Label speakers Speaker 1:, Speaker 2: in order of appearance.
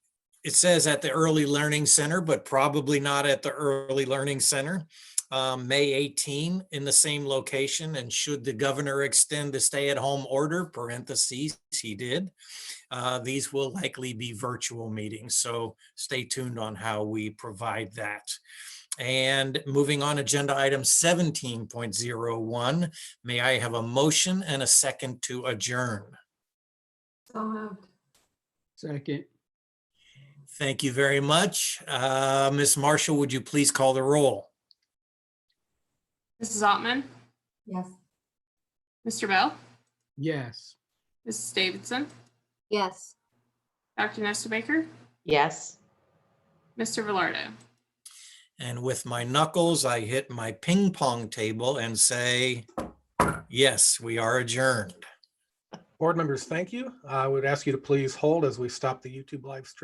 Speaker 1: it says at the Early Learning Center, but probably not at the Early Learning Center. Um, May 18 in the same location, and should the governor extend the stay-at-home order, parentheses, he did. Uh, these will likely be virtual meetings, so stay tuned on how we provide that. And moving on, agenda item 17.01, may I have a motion and a second to adjourn?
Speaker 2: So moved.
Speaker 3: Second,
Speaker 1: Thank you very much. Uh, Ms. Marshall, would you please call the roll?
Speaker 4: Mrs. Altman,
Speaker 2: Yes.
Speaker 4: Mr. Bell,
Speaker 3: yes.
Speaker 4: Mrs. Davidson,
Speaker 5: Yes.
Speaker 4: Dr. Nesta Baker,
Speaker 6: Yes.
Speaker 4: Mr. Velardo.
Speaker 1: And with my knuckles, I hit my ping pong table and say, yes, we are adjourned.
Speaker 7: Board members, thank you. I would ask you to please hold as we stop the YouTube live stream.